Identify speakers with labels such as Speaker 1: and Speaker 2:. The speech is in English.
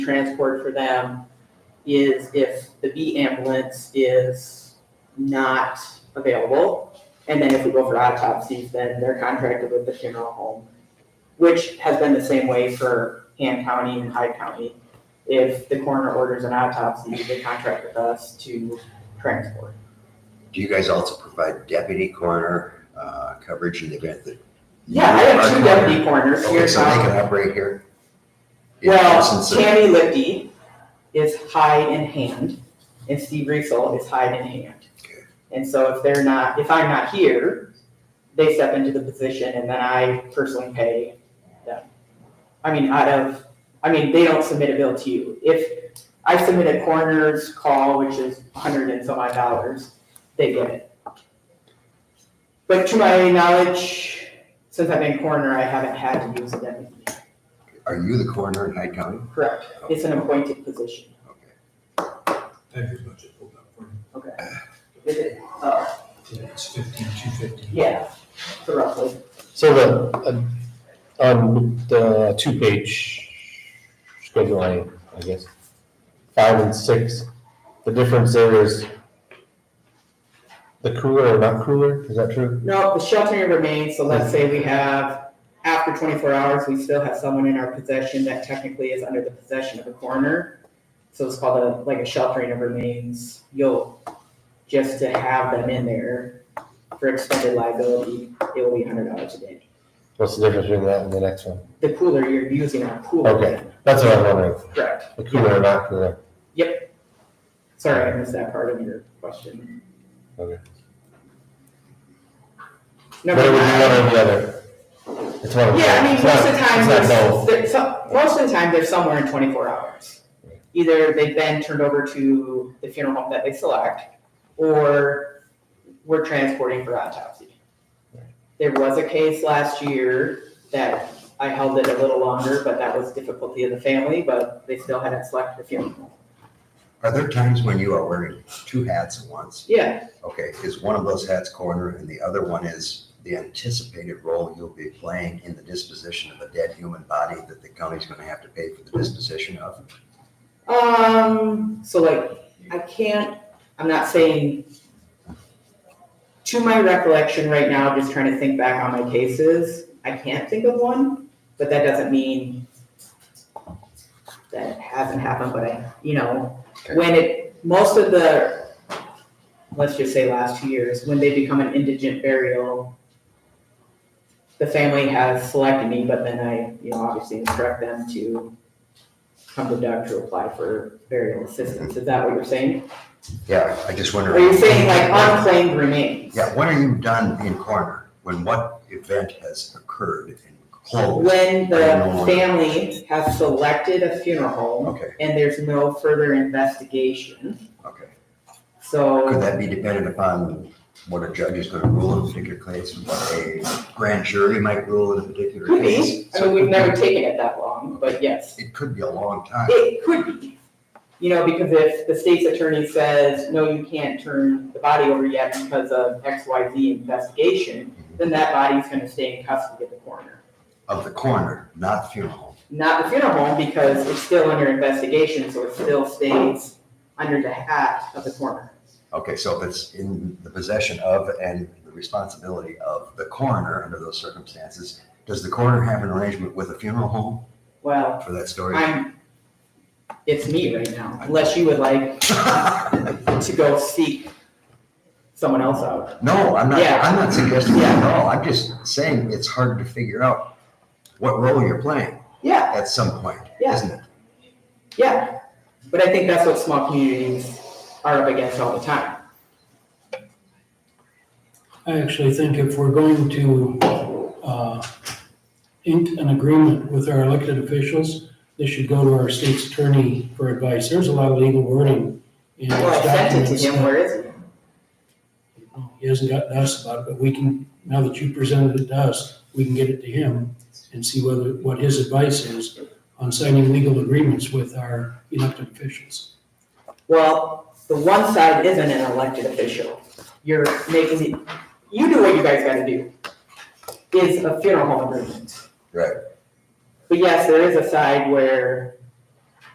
Speaker 1: transport for them is if the B ambulance is not available. And then if we go for autopsies, then they're contracted with the funeral home, which has been the same way for Han County and Hyde County. If the coroner orders an autopsy, they contract with us to transport.
Speaker 2: Do you guys also provide deputy coroner uh, coverage in the event that?
Speaker 1: Yeah, I have two deputy coroners here
Speaker 2: Okay,
Speaker 1: in
Speaker 2: so they
Speaker 1: town.
Speaker 2: can operate here? In
Speaker 1: Well,
Speaker 2: absence of-
Speaker 1: Tammy Lipke is high in hand, and Steve Riesel is high in hand.
Speaker 2: Okay.
Speaker 1: And so if they're not, if I'm not here, they step into the position, and then I personally pay them. I mean, out of, I mean, they don't submit a bill to you. If I submit a coroner's call, which is a hundred and some odd dollars, they get it. But to my knowledge, since I've been coroner, I haven't had to use a deputy.
Speaker 2: Are you the coroner in Hyde County?
Speaker 1: Correct. It's an appointed position.
Speaker 2: Okay.
Speaker 3: I have your budget pulled up for you.
Speaker 1: Is it, uh,
Speaker 3: It's fifteen, two fifty.
Speaker 1: yeah, so roughly.
Speaker 4: So the, uh, on the two-page schedule, I, I guess, five and six, the difference there is the cooler or not cooler, is that true?
Speaker 1: No, the sheltering remains, so let's say we have, after twenty-four hours, we still have someone in our possession that technically is under the possession of a coroner. So it's called a, like a sheltering of remains, you'll, just to have them in there for extended liability, it will be hundred dollars a day.
Speaker 4: What's the difference between that and the next one?
Speaker 1: The cooler, you're using our cooler.
Speaker 4: Okay. That's what I'm wondering,
Speaker 1: Correct.
Speaker 4: the cooler or not cooler,
Speaker 1: Sorry, I missed that part of your question.
Speaker 4: okay. But
Speaker 1: Number
Speaker 4: it would be
Speaker 1: nine.
Speaker 4: one or the other. It's one or the other.
Speaker 1: Yeah, I mean,
Speaker 4: It's
Speaker 1: most
Speaker 4: not-
Speaker 1: of the time,
Speaker 4: It's not
Speaker 1: there's-
Speaker 4: both,
Speaker 1: there- so- most of the time, they're somewhere in twenty-four hours. Either they've been turned over to the funeral home that they select, or we're transporting for autopsy. There was a case last year that I held it a little longer, but that was difficulty of the family, but they still hadn't selected the funeral. home.
Speaker 2: Are there times when you are wearing two hats at once?
Speaker 1: Yeah,
Speaker 2: Okay, is one of those hats coroner and the other one is the anticipated role you'll be playing in the disposition of a dead human body that the county's gonna have to pay for the disposition of?
Speaker 1: um, so like, I can't, I'm not saying, to my recollection right now, just trying to think back on my cases, I can't think of one, but that doesn't mean that it hasn't happened, but I, you know,
Speaker 2: Okay.
Speaker 1: when it, most of the, let's just say last two years, when they become an indigent burial, the family has selected me, but then I, you know, obviously instruct them to come to Doug to apply for burial assistance. Is that what you're saying?
Speaker 2: Yeah, I just wonder.
Speaker 1: Are you saying like unclaimed remains?
Speaker 2: Yeah, when are you done in coroner? When what event has occurred and closed?
Speaker 1: When the family has selected a funeral home
Speaker 2: Okay,
Speaker 1: and there's no further investigation,
Speaker 2: okay. Could
Speaker 1: so
Speaker 2: that be dependent upon what a judge is gonna rule in a particular case, what a grand jury might rule in a particular
Speaker 1: could
Speaker 2: case?
Speaker 1: be. I mean, we've never taken it that long, but yes,
Speaker 2: It could be a long time.
Speaker 1: it could be. You know, because if the state's attorney says, no, you can't turn the body over yet because of X, Y, Z investigation, then that body's gonna stay in custody of the coroner.
Speaker 2: Of the coroner, not funeral home.
Speaker 1: not the funeral home because it's still under investigation, so it still stays under the hat of the coroner.
Speaker 2: Okay, so if it's in the possession of and the responsibility of the coroner under those circumstances, does the coroner have an arrangement with a funeral home
Speaker 1: Well,
Speaker 2: for that story?
Speaker 1: I'm, it's me right now, unless you would like to go seek someone else out.
Speaker 2: No, I'm not,
Speaker 1: Yeah.
Speaker 2: I'm not suggesting that at
Speaker 1: Yeah.
Speaker 2: all. I'm just saying it's hard to figure out what role you're playing
Speaker 1: Yeah,
Speaker 2: at some point,
Speaker 1: Yeah.
Speaker 2: isn't it?
Speaker 1: yeah, but I think that's what small communities are up against all the time.
Speaker 5: I actually think if we're going to uh, ink an agreement with our elected officials, they should go to our state's attorney for advice. There's a lot of legal wording in those
Speaker 1: Well, I sent it to
Speaker 5: documents.
Speaker 1: him, where is it?
Speaker 5: He hasn't gotten us about it, but we can, now that you presented it to us, we can get it to him and see whether, what his advice is on signing legal agreements with our elected officials.
Speaker 1: Well, the one side isn't an elected official. You're making, it- you do what you guys gotta do. Is a funeral home agreement.
Speaker 2: Right.
Speaker 1: But yes, there is a side where